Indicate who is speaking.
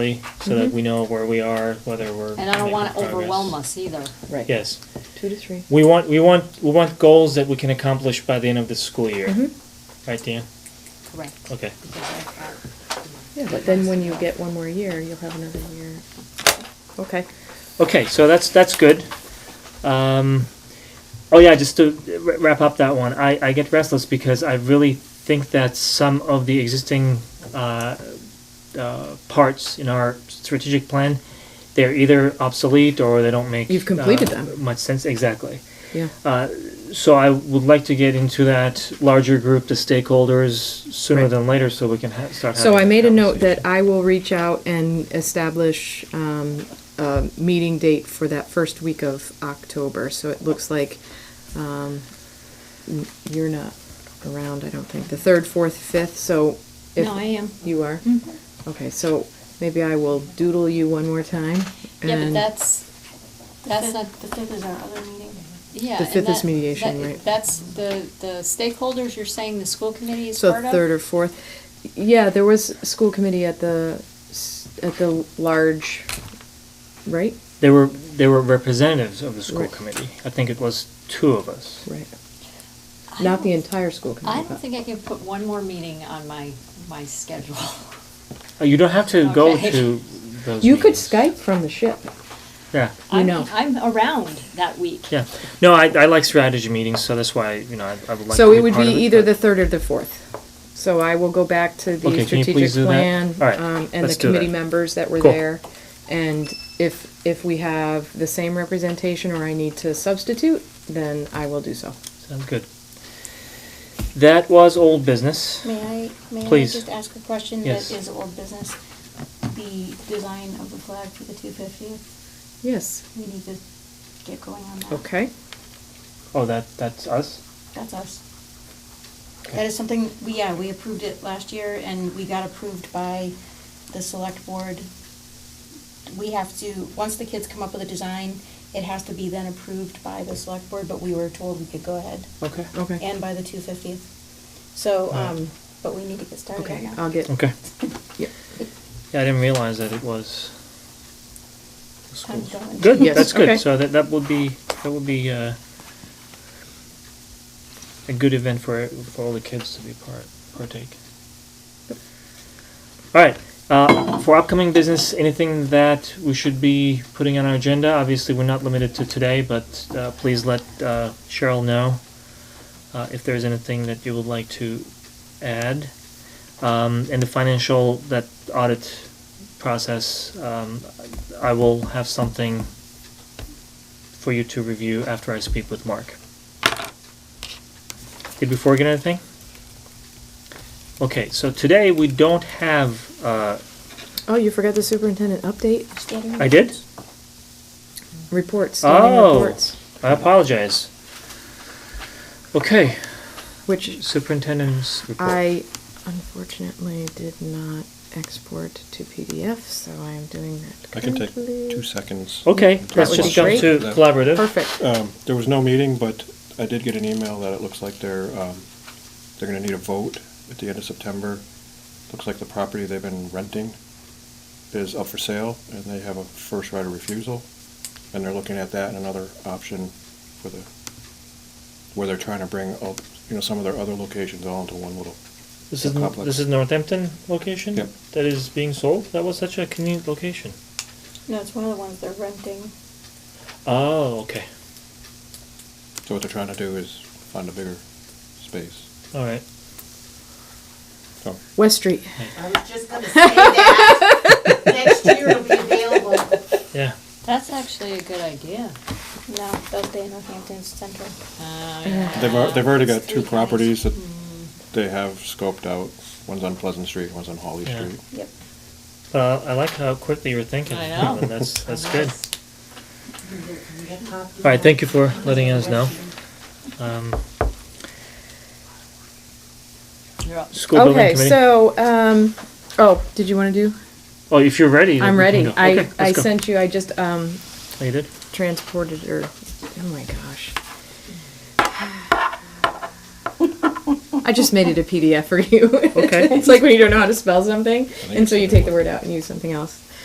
Speaker 1: so that we know where we are, whether we're.
Speaker 2: Mm-hmm. And I don't
Speaker 1: making
Speaker 2: want to overwhelm
Speaker 1: progress.
Speaker 2: us either.
Speaker 3: Right.
Speaker 1: Yes,
Speaker 3: Two to three.
Speaker 1: we want, we want, we want goals that we can accomplish by the end of the school year.
Speaker 3: Mm-hmm.
Speaker 2: Mm-hmm.
Speaker 1: Right, Dan?
Speaker 2: Correct.
Speaker 1: Okay.
Speaker 2: Because I've got-
Speaker 3: Yeah, but then when you get one more year, you'll have another year. Okay.
Speaker 1: Okay, so that's, that's good. Um, oh yeah, just to wra- wrap up that one, I, I get restless because I really think that some of the existing, uh, uh, parts in our strategic plan, they're either obsolete or they don't make.
Speaker 3: You've completed
Speaker 1: uh,
Speaker 3: them.
Speaker 1: Much sense, exactly.
Speaker 3: Yeah.
Speaker 1: So I would like to get into that larger group, the stakeholders, sooner
Speaker 3: Right.
Speaker 1: than later, so we can ha- start.
Speaker 3: So I
Speaker 1: having
Speaker 3: made a note
Speaker 1: conversation.
Speaker 3: that I will reach out and establish, um, a meeting date for that first week of October, so it looks like, um, n- you're not around, I don't think, the third, fourth, fifth, so. if-
Speaker 2: No, I am.
Speaker 3: You are? Okay, so maybe I will doodle you one more time.
Speaker 2: Yeah, but
Speaker 3: and-
Speaker 2: that's, that's not,
Speaker 4: The fifth is our other meeting.
Speaker 2: yeah.
Speaker 3: The
Speaker 2: and
Speaker 3: fifth is
Speaker 2: that-
Speaker 3: mediation,
Speaker 2: that-
Speaker 3: right?
Speaker 2: That's the, the stakeholders, you're saying the school committee is
Speaker 3: So
Speaker 2: part of?
Speaker 3: third or fourth, yeah, there was a school committee at the, s- at the large, right?
Speaker 1: They were, they were representatives of the school
Speaker 3: Right.
Speaker 1: committee. I think it was two of us.
Speaker 3: Right.
Speaker 2: I
Speaker 3: Not
Speaker 2: don't-
Speaker 3: the entire school committee.
Speaker 2: I don't
Speaker 3: but-
Speaker 2: think I can put one more meeting on my, my schedule.
Speaker 1: Uh, You don't have to go
Speaker 2: Okay.
Speaker 1: to those.
Speaker 3: You could
Speaker 1: meetings.
Speaker 3: Skype from the ship.
Speaker 1: Yeah,
Speaker 3: You
Speaker 2: I'm-
Speaker 3: know.
Speaker 2: I'm around that week.
Speaker 1: yeah. No, I, I like strategy meetings, so that's why, you know, I, I would like.
Speaker 3: So
Speaker 1: to
Speaker 3: it would
Speaker 1: part
Speaker 3: be
Speaker 1: of
Speaker 3: either the
Speaker 1: but-
Speaker 3: third or the fourth. So I will go back to
Speaker 1: Okay,
Speaker 3: the
Speaker 1: can you
Speaker 3: strategic
Speaker 1: please do that?
Speaker 3: plan,
Speaker 1: All right,
Speaker 3: um, and
Speaker 1: let's
Speaker 3: the
Speaker 1: do that.
Speaker 3: committee members that were
Speaker 1: Cool.
Speaker 3: there. And if, if we have the same representation or I need to substitute, then I will do so.
Speaker 1: Sounds good. That was old business.
Speaker 4: May I, may I
Speaker 1: Please.
Speaker 4: just ask a question
Speaker 1: Yes.
Speaker 4: that is old business? The design of the flag for the two fiftieth,
Speaker 3: Yes,
Speaker 4: we need to get going on that.
Speaker 3: okay.
Speaker 1: Oh, that, that's us?
Speaker 4: That's us. That is something, we, yeah, we approved it last year and we got approved by the select board. We have to, once the kids come up with a design, it has to be then approved by the select board, but we were told we could go ahead.
Speaker 1: Okay.
Speaker 3: Okay.
Speaker 4: And by the two fiftieth. So,
Speaker 1: Right.
Speaker 4: um, but we need to get started on
Speaker 3: Okay,
Speaker 4: that.
Speaker 3: I'll get,
Speaker 1: Okay.
Speaker 3: yeah.
Speaker 1: Yeah, I didn't realize that it was. the
Speaker 4: Time's
Speaker 1: schools.
Speaker 4: going.
Speaker 1: Good,
Speaker 3: Yes,
Speaker 1: that's
Speaker 3: okay.
Speaker 1: good. So that, that would be, that would be, uh, a good event for, for all the kids to be part, partake. All right, uh, for upcoming business, anything that we should be putting on our agenda? Obviously, we're not limited to today, but, uh, please let, uh, Cheryl know, uh, if there's anything that you would like to add. Um, and the financial, that audit process, um, I will have something for you to review after I speak with Mark. Did we forget anything? Okay, so today we don't have, uh,
Speaker 3: Oh, you forgot the superintendent update
Speaker 4: Standing
Speaker 1: I did?
Speaker 4: reports.
Speaker 3: reports, standing
Speaker 1: Oh,
Speaker 3: reports,
Speaker 1: I apologize. Okay,
Speaker 3: which
Speaker 1: superintendent's report.
Speaker 3: I unfortunately did not export to PDF, so I am doing that
Speaker 5: I can take
Speaker 3: currently.
Speaker 5: two seconds.
Speaker 1: Okay,
Speaker 5: That
Speaker 1: let's
Speaker 3: would
Speaker 1: just
Speaker 3: be
Speaker 1: jump
Speaker 3: great.
Speaker 1: to collaborative.
Speaker 3: Perfect.
Speaker 5: Um, There was no meeting, but I did get an email that it looks like they're, um, they're gonna need a vote at the end of September. Looks like the property they've been renting is up for sale, and they have a first right of refusal. And they're looking at that and another option for the, where they're trying to bring, all- you know, some of their other locations all into one little.
Speaker 1: This is,
Speaker 5: complex.
Speaker 1: this is Northampton location?
Speaker 5: Yep.
Speaker 1: That is being sold? That was such a convenient location.
Speaker 4: No, it's one of the ones they're renting.
Speaker 1: Oh, okay,
Speaker 5: So what they're trying to do is find a bigger space.
Speaker 1: all right.
Speaker 5: So
Speaker 3: West Street.
Speaker 6: I was just gonna say that. Next year it'll be available.
Speaker 1: Yeah,
Speaker 2: That's actually a good idea.
Speaker 4: No, they'll stay in Northampton's central.
Speaker 2: Uh, yeah.
Speaker 5: They've, al- they've already got two
Speaker 4: Street lights.
Speaker 5: properties that they have scoped out. One's on Pleasant Street, one's on Holly
Speaker 1: Yeah.
Speaker 5: Street.
Speaker 4: Yep.
Speaker 1: Uh, I like how quickly you were thinking.
Speaker 2: I know.
Speaker 1: and That's, that's good.
Speaker 6: All
Speaker 1: All right, thank you for letting us know. Um,
Speaker 2: You're up.
Speaker 1: School building
Speaker 3: Okay,
Speaker 1: committee.
Speaker 3: so, um, oh, did you want to do?
Speaker 1: Oh, if you're ready. then
Speaker 3: I'm
Speaker 1: we can
Speaker 3: ready.
Speaker 1: go.
Speaker 3: I,
Speaker 1: Okay,
Speaker 3: I
Speaker 1: let's go.
Speaker 3: sent you, I just, um,
Speaker 1: Oh, you did?
Speaker 3: transported or, oh my gosh. I just made it a PDF for you.
Speaker 1: Okay.
Speaker 3: it's like when you don't know how to spell something,
Speaker 5: think
Speaker 3: and so you
Speaker 5: it's-
Speaker 3: take the word out and use something else.